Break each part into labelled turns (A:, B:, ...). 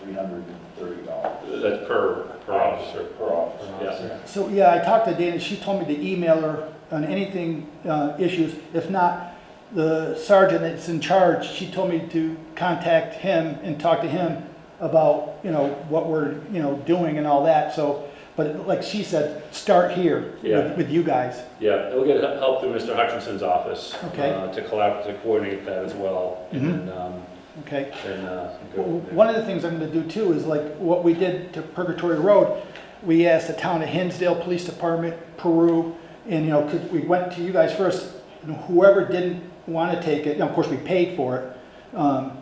A: three hundred and thirty dollars
B: That's per, per officer.
A: per officer.
B: Yeah.
C: So, yeah, I talked to Dana, she told me to email her on anything, uh, issues. If not, the sergeant that's in charge, she told me to contact him and talk to him about, you know, what we're, you know, doing and all that, so. But like she said, start here
B: Yeah.
C: with, with you guys.
B: Yeah, and we'll get help through Mr. Hutchinson's office.
C: Okay.
B: uh, To collaborate, to coordinate that as well. And, um,
C: Okay.
B: and, uh. go
C: Well,
B: from there.
C: One of the things I'm gonna do too is like what we did to Purgatory Road, we asked the town of Hinsdale Police Department, Peru, and you know, 'cause we went to you guys first, and whoever didn't wanna take it, and of course, we paid for it, um,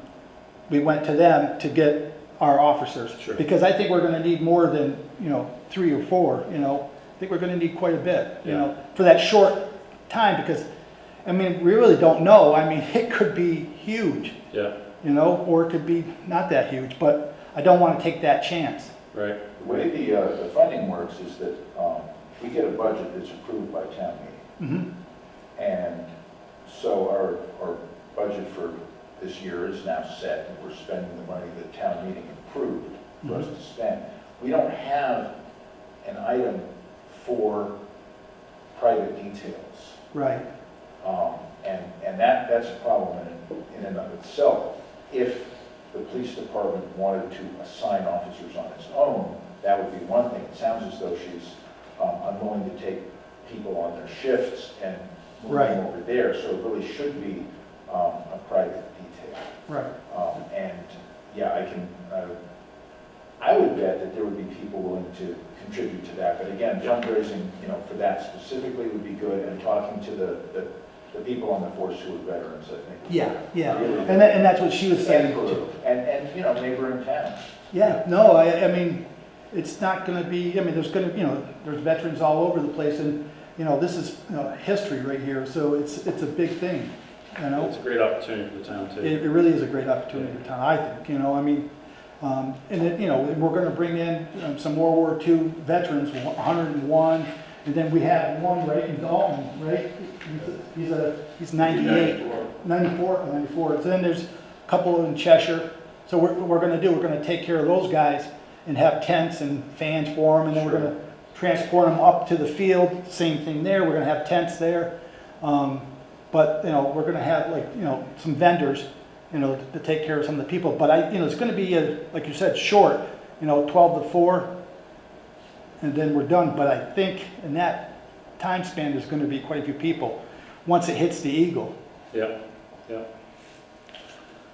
C: we went to them to get our officers.
B: Sure.
C: Because I think we're gonna need more than, you know, three or four, you know, I think we're gonna need quite a bit, you
B: Yeah.
C: know, for that short time, because, I mean, we really don't know, I mean, it could be huge
B: Yeah,
C: you know, or it could be not that huge, but I don't want to take that chance.
B: right,
A: The way the, uh, the funding works is that, um, we get a budget that's approved by town meeting.
C: Mhm.
A: And so our, our budget for this year is now set, and we're spending the money that town meeting approved for us to spend. We don't have an item for private details.
C: Right.
A: Um, And, and that, that's a problem in, in and of itself. If the police department wanted to assign officers on its own, that would be one thing. It sounds as though she's um, unwilling to take people on their shifts and move
C: Right.
A: them over there. So it really should be um, a private detail.
C: Right.
A: Um, And, yeah, I can, uh, I would bet that there would be people willing to contribute to that. But again, fundraising, you know, for that specifically would be good, and talking to the, the the people on the force who are veterans, I think.
C: Yeah, yeah. And that, and that's what she was saying.
A: And, and, and, you know, neighboring towns.
C: Yeah, no, I, I mean, it's not gonna be, I mean, there's gonna, you know, there's veterans all over the place and, you know, this is, you know, history right here, so it's, it's a big thing, you know?
B: it's a great opportunity for the town too.
C: It, it really is a great opportunity for town, I think, you know, I mean, um, and it, you know, and we're gonna bring in um, some World War II veterans, one hundred and one, and then we have one right in Dalton, right? He's a- He's a, he's ninety-eight, ninety-four, or ninety-four, so then there's a couple in Cheshire. So what we're gonna do, we're gonna take care of those guys and have tents and fans for them, and then we're
B: Sure.
C: gonna transport them up to the field, same thing there, we're gonna have tents there. Um, But, you know, we're gonna have like, you know, some vendors, you know, to take care of some of the people, but I, you know, it's gonna be, uh, like you said, short, you know, twelve to four, and then we're done, but I think in that time span, there's gonna be quite a few people, once it hits the Eagle.
B: Yeah, yeah,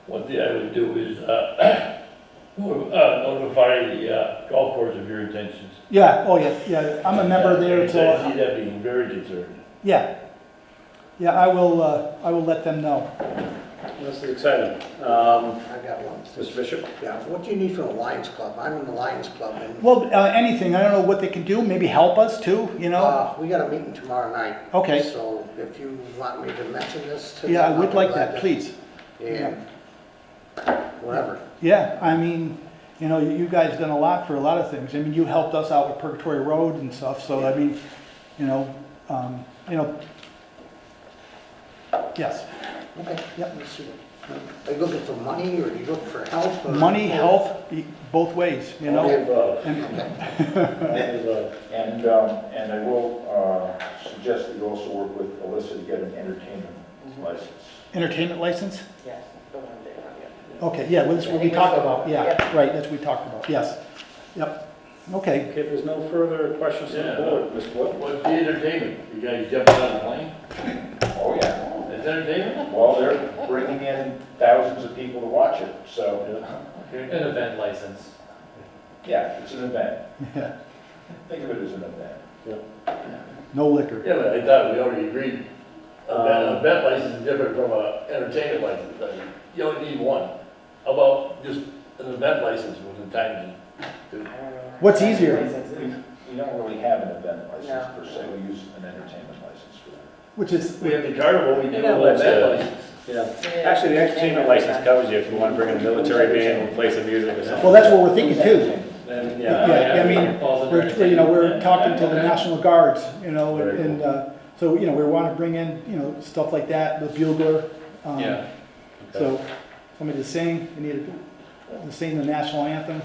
D: One thing I would do is, uh, nor- uh, notify the uh, golf course of your intentions.
C: Yeah, oh yeah, yeah, I'm a member there,
D: I see
C: so,
D: that being very concerning.
C: yeah. Yeah, I will, uh, I will let them know.
B: this is exciting. Um,
E: I got one.
B: Mr. Bishop?
E: Yeah, what do you need from the Lions Club? I'm in the Lions Club and,
C: Well, uh, anything, I don't know what they can do, maybe help us too, you know?
E: uh, we got a meeting tomorrow night.
C: Okay.
E: So if you want me to mention this to.
C: Yeah, I
E: them,
C: would
E: I'll
C: like
E: be
C: that,
E: glad
C: please.
E: to- And whatever.
C: Yeah, I mean, you know, you guys done a lot for a lot of things. I mean, you helped us out with Purgatory Road and stuff, so I mean, you know, um, you know. Yes,
E: Okay.
C: Yep.
E: Let's see. Are you looking for money or are you looking for help? or-
C: money, health, e- both ways, you know?
B: uh,
C: And-
A: And, um, and I will, uh, suggest that you also work with Alyssa to get an entertainment
C: Mm-hmm.
A: license.
C: Entertainment license?
F: Yes, the one there, yeah.
C: Okay, yeah, well, that's what we
F: Yeah.
C: talked about, yeah, right, that's what we talked about, yes. Yep, okay.
B: Okay, if there's no further questions from the
D: Yeah.
B: board, Mr. Wood?
D: What's the entertainment? You guys jumping on a plane?
A: Oh, yeah.
D: That's entertainment?
A: Well, they're bringing in thousands of people to watch it, so,
B: Okay.
G: An event license.
A: yeah, it's an event.
C: Yeah.
A: Think of it as an event.
C: No liquor.
D: Yeah, but I thought we already agreed. A bet- a
B: Um,
D: bet license is different from a entertainment license. I mean, You only need one. How about just an event license with a time?
F: I don't know.
C: What's easier?
A: We we don't really have an event license
F: No.
A: per se, we use an entertainment license for that.
C: Which is,
D: We have the carnival, we do a
B: Yeah,
D: little
B: that's
D: event
B: it.
D: license.
B: Yeah. Actually, the entertainment license covers you if you want to bring in a military band and play some music or
C: well,
B: something.
C: that's what we're thinking too.
B: Then,
C: Yeah, I mean,
G: Falls under
C: We're, you know, we're
G: entertainment.
C: talking to the
G: Okay.
C: National Guards, you know,
B: Very
C: and, uh, so, you know, we wanna bring in, you know, stuff like that, the bugler. um,
G: Yeah.
C: So, somebody to sing, we need to sing the national anthem.